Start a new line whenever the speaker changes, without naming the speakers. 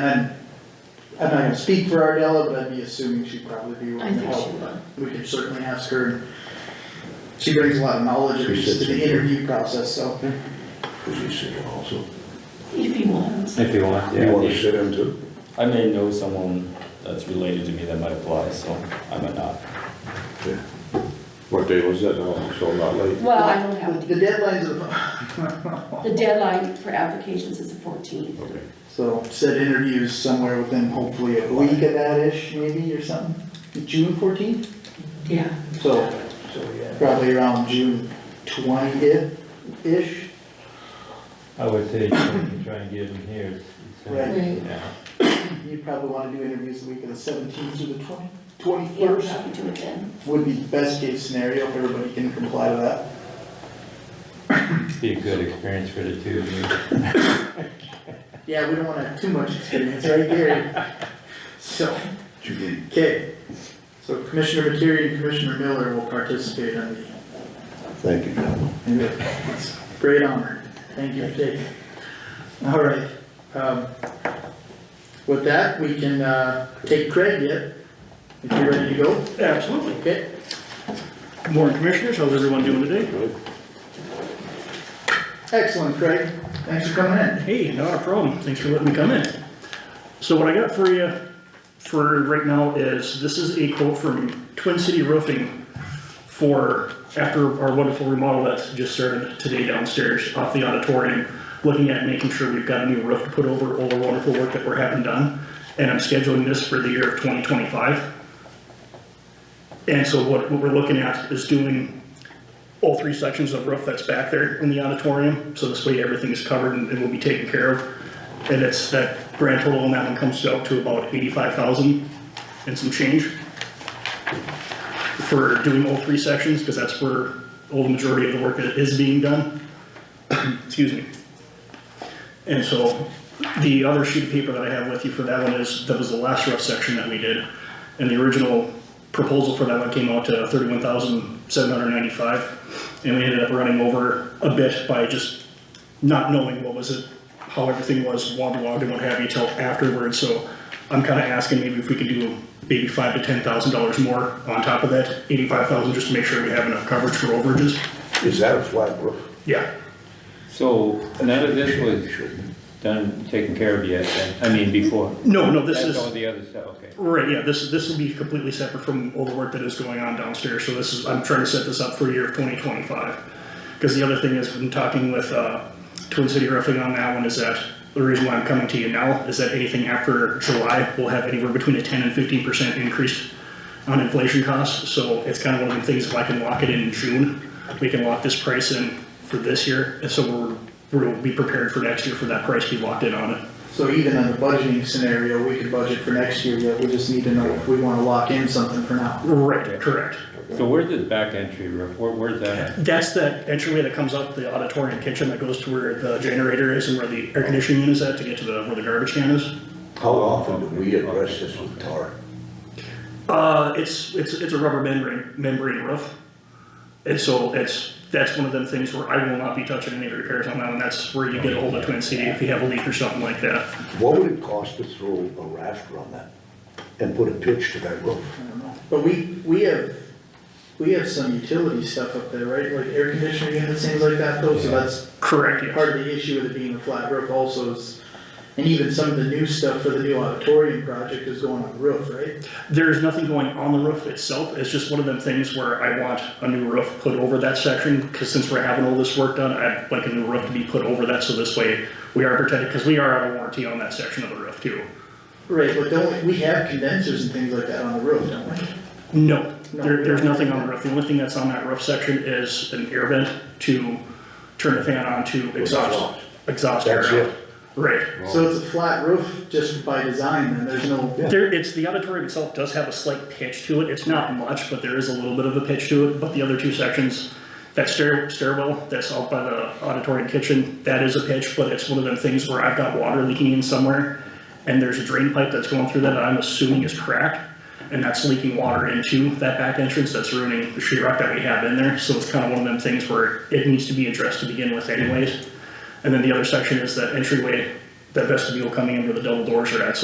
And I'm not gonna speak for Ardella, but I'd be assuming she'd probably be
I
willing to
think she
help.
would.
We could certainly ask her. and She brings a lot of knowledge to the interview process, so.
Because you sit in also.
If he wants.
If you want,
You want to
yeah.
sit in too?
I may know someone that's related to me that might apply, so I might not.
Yeah. What day was that? Oh, so not late.
Well, I don't have,
The the deadlines of,
the deadline for applications is the fourteenth.
Okay.
so said interviews somewhere within hopefully a week of that-ish maybe or something. June fourteenth,
Yeah,
so
So, yeah.
probably around June twentieth-ish.
I would say you can try and get them here. It's- it's gonna-
Right.
right.
Yeah.
You'd probably wanna do interviews the week of the seventeenth through the twenty,
Yeah, we'll
twenty-first.
probably do it then.
would be best case scenario if everybody can comply to that.
Be a good experience for the two of you.
Yeah, we don't want to have too much experience right here. So, okay, so Commissioner Materi and Commissioner Miller will participate on
Thank you, John.
the, it's a great honor. Thank you for taking. it. All right, um, with that, we can, uh, take Craig yet, if you're ready to go.
Absolutely.
Okay,
Good Morning Commissioners, how's everyone doing today?
Good.
excellent, Craig. Thanks for coming in.
Hey, not a problem, thanks for letting me come in. So what I got for you for right now is, this is a quote from Twin City Roofing for, after our wonderful remodel that just started today downstairs off the auditorium, looking at making sure we've got a new roof to put over all the wonderful work that we're having done. And I'm scheduling this for the year of 2025. And so what, what we're looking at is doing all three sections of roof that's back there in the auditorium, so this way everything is covered and and will be taken care of. And it's, that grand total on that one comes out to about eighty-five thousand and some change for doing all three sections, because that's where all the majority of the work that is being done. Excuse me. And so, the other sheet of paper that I have with you for that one is, that was the last rough section that we did. And the original proposal for that one came out to thirty-one thousand seven hundred ninety-five. And we ended up running over a bit by just not knowing what was it, how everything was waterlogged and what have you till afterwards. So I'm kinda asking maybe if we could do maybe five to ten thousand dollars more on top of that, eighty-five thousand, just to make sure we have enough coverage for overages.
Is that a flat roof?
Yeah,
So none of this was done, taken care of yet, then? I mean, before?
no, no, this is.
That's all the other stuff, okay.
Right, yeah, this, this will be completely separate from all the work that is going on downstairs, so this is, I'm trying to set this up for year of twenty twenty-five. Because the other thing is, when talking with, uh, Twin City Roofing on that one, is that the reason why I'm coming to you now is that anything after July will have anywhere between a ten and fifteen percent increase on inflation costs, so it's kind of one of the things, if I can lock it in in June, we can lock this price in for this year, and so we're, we'll be prepared for next year for that price to be locked in on it.
So even in the budgeting scenario, we could budget for next year, yet we just need to know if we wanna lock in something for now.
Right, correct.
So where's this back entry roof? Where, where's that at?
That's the entryway that comes out the auditorium kitchen that goes to where the generator is and where the air conditioning unit is at to get to the, where the garbage can is.
How often do we address this with tar?
Uh, it's, it's, it's a rubber membrane, membrane roof. And so it's, that's one of them things where I will not be touching any repairs on that, and that's where you get a hold of Twin City if you have a leak or something like that.
What would it cost to throw a rafter on that and put a pitch to that roof?
But we, we have, we have some utility stuff up there, right, like air conditioning units, things like that, though, so that's
Correct, yes.
part of the issue with it being a flat roof also is, and even some of the new stuff for the new auditorium project is going on the roof, right?
There's nothing going on the roof itself, it's just one of them things where I want a new roof put over that section, because since we're having all this work done, I'd like a new roof to be put over that, so this way we are protected, because we are out of warranty on that section of the roof too.
Right, but don't, we we have condensers and things like that on the roof, don't we?
No,
No,
there,
we
there's
don't.
nothing on the roof, the only thing that's on that roof section is an air vent to turn the fan on to exhaust, exhaust air.
That's
out.
it.
Right.
So it's a flat roof just by design, then, there's no.
Yeah.
There, it's, the auditorium itself does have a slight pitch to it, it's not much, but there is a little bit of a pitch to it, but the other two sections, that stair, stairwell that's out by the auditorium kitchen, that is a pitch, but it's one of them things where I've got water leaking in somewhere, and there's a drain pipe that's going through that I'm assuming is cracked, and that's leaking water into that back entrance, that's ruining the sheetrock that we have in there, so it's kind of one of them things where it needs to be addressed to begin with anyways. And then the other section is that entryway that vestibule coming in where the double doors are at, so